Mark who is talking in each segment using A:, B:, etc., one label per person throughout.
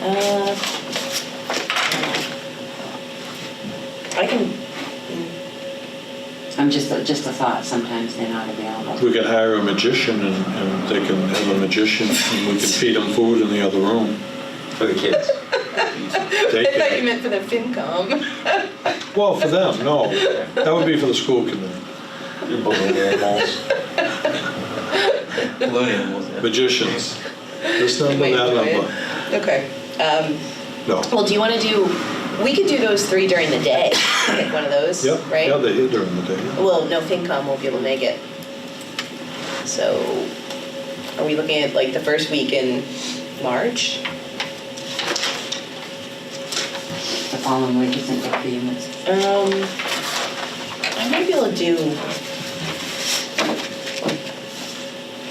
A: Uh, I can, mm.
B: I'm just, just a thought, sometimes they're not available.
C: We could hire a magician and, and they can have a magician and we can feed them food in the other room.
D: for the kids.
C: They
A: I thought you
C: can,
A: meant for the FinCom.
C: well, for them, no. That would be for the school committee.
D: Balloon animals. Balloon animals, yeah.
C: Magicians. This number,
A: Wait,
C: that
A: do it.
C: number.
A: Okay. Um,
C: No.
A: Well, do you want to do, we could do those three during the day, pick one of those,
C: Yep,
A: right?
C: yeah, they're here during the day.
A: Well, no, FinCom won't be able to make it. So are we looking at like the first week in March?
B: The following week isn't good for you, it's
A: Um, I might be able to do,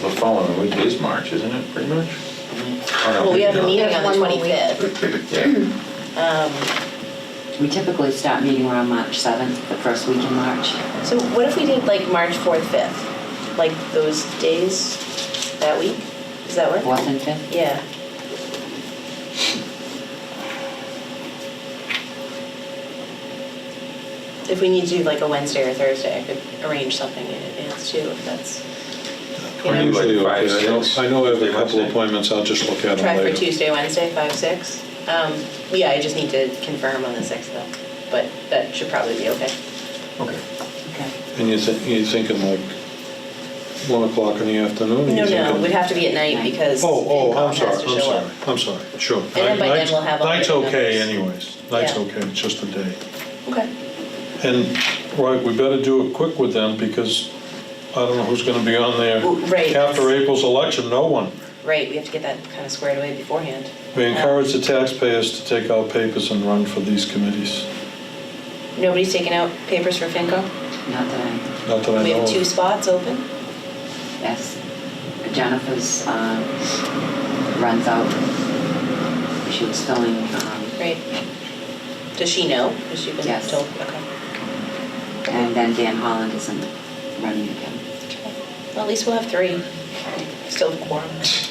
D: The following week is March, isn't it, pretty much?
C: Oh,
A: well, Oh, we have a meeting on the
E: One more week.
A: 25th.
D: Yeah,
A: Um,
B: We typically start meeting around March 7th, the first week in March.
A: So what if we did like March 4th, 5th? Like those days that week? Does that work?
B: 4th and 5th?
A: Yeah. If we need to do like a Wednesday or Thursday, I could arrange something in advance too, if that's, you
C: I'm
A: know.
C: usually
D: Like five,
C: okay. I know-
D: six,
C: I know I have a
D: Tuesday,
C: couple
D: Wednesday.
C: appointments, I'll just look at them
A: Try for
C: later.
A: Tuesday, Wednesday, five, six. Um, yeah, I just need to confirm on the sixth though, but that should probably be okay.
D: okay.
B: Okay.
C: And you're thi- you're thinking like 1 o'clock in the afternoon?
A: No,
C: you're
A: no,
C: thinking-
A: it would have to be at night because
C: Oh, oh,
A: FinCom
C: I'm
A: has
C: sorry,
A: to
C: I'm
A: show
C: sorry,
A: up.
C: I'm sorry, sure. And
A: then by then we'll have all
C: Night's
A: the
C: okay
A: numbers.
C: anyways, night's
A: Yeah.
C: okay, it's just a day.
A: Okay,
C: And, right, we better do it quick with them because I don't know who's going to be on there.
A: Well, right.
C: After April's election, no one.
A: right, we have to get that kind of squared away beforehand.
C: We
A: Um,
C: encourage the taxpayers to take out papers and run for these committees.
A: Nobody's taking out papers for FinCom?
B: Not that
C: Not that I know of.
A: We have two spots open?
B: I, yes. Jennifer's um, runs out. She was filling, um,
A: Right. Does she know? Has she been
B: Yes.
A: told? Okay.
B: and then Dan Holland isn't running again.
A: Well, at least we'll have three. Still have quorum.
D: It's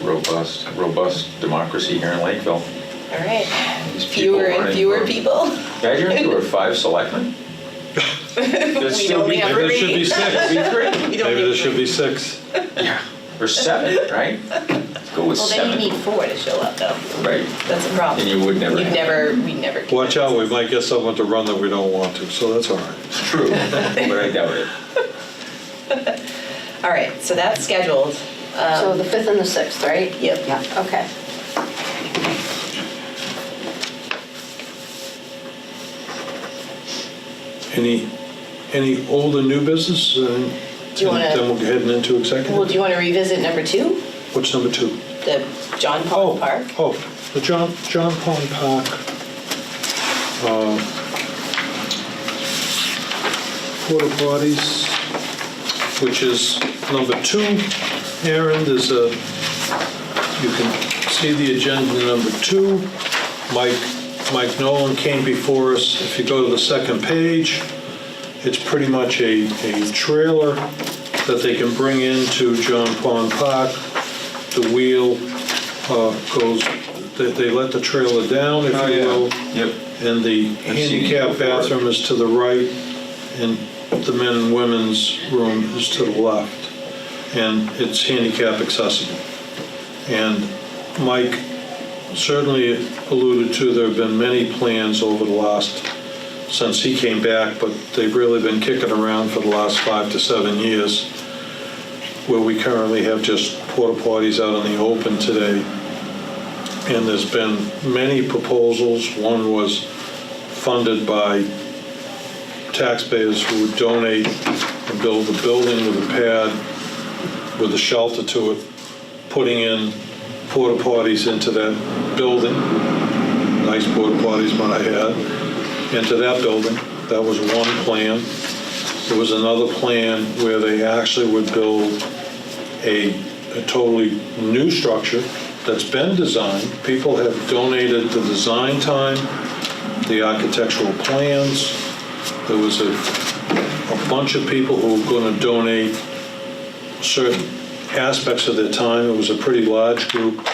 D: Robust, robust democracy here in Lakeville.
A: All right.
D: These people
A: Fewer and
D: running
A: fewer
D: for-
A: people.
D: Imagine if there were five selectmen.
A: We only have
C: Maybe there should
A: three.
C: be six.
A: We
C: Maybe
A: don't
C: there
A: need
C: should
A: three.
C: be six.
D: Yeah, or seven, right? Let's Go with
A: Well, then you
D: seven.
A: need four to show up though.
D: Right,
A: That's a problem.
D: And you would never
A: We'd
D: have.
A: never, we'd never. get
C: Watch out, we
A: that.
C: might get someone to run that we don't want to, so that's all right.
D: it's true, but I doubt it.
A: All right, so that's scheduled.
E: So the 5th and the 6th, right?
A: Yep.
B: Yeah.
E: Okay.
C: Any, any older new business? uh,
A: Do you wanna-
C: Then we're heading into
A: Well, do
C: executive.
A: you want to revisit number two,
C: What's number two?
A: the John
C: Oh,
A: Paul Park?
C: Oh, the John, John Pond Park. uh, Porta potties, which is number two. Aaron, there's a, you can see the agenda number two. Mike, Mike Nolan came before us. If you go to the second page, it's pretty much a, a trailer that they can bring into John Pond Park. The wheel uh, goes, they, they let the trailer down, if
D: Oh,
C: you
D: yeah.
C: will.
D: Yep.
C: And the
D: I've seen it
C: handicap
D: before.
C: bathroom is to the right, and the men and women's room is to the left. And it's handicap accessible. And Mike certainly alluded to, there have been many plans over the last, since he came back, but they've really been kicking around for the last five to seven years, where we currently have just porta potties out in the open today. And there's been many proposals. One was funded by taxpayers who would donate and build a building with a pad, with a shelter to it, putting in porta potties into that building. Nice porta potties, might I add, into that building. That was one plan. There was another plan where they actually would build a, a totally new structure that's been designed. People have donated the design time, the architectural plans. There was a, a bunch of people who were going to donate certain aspects of their time. It was a pretty large group.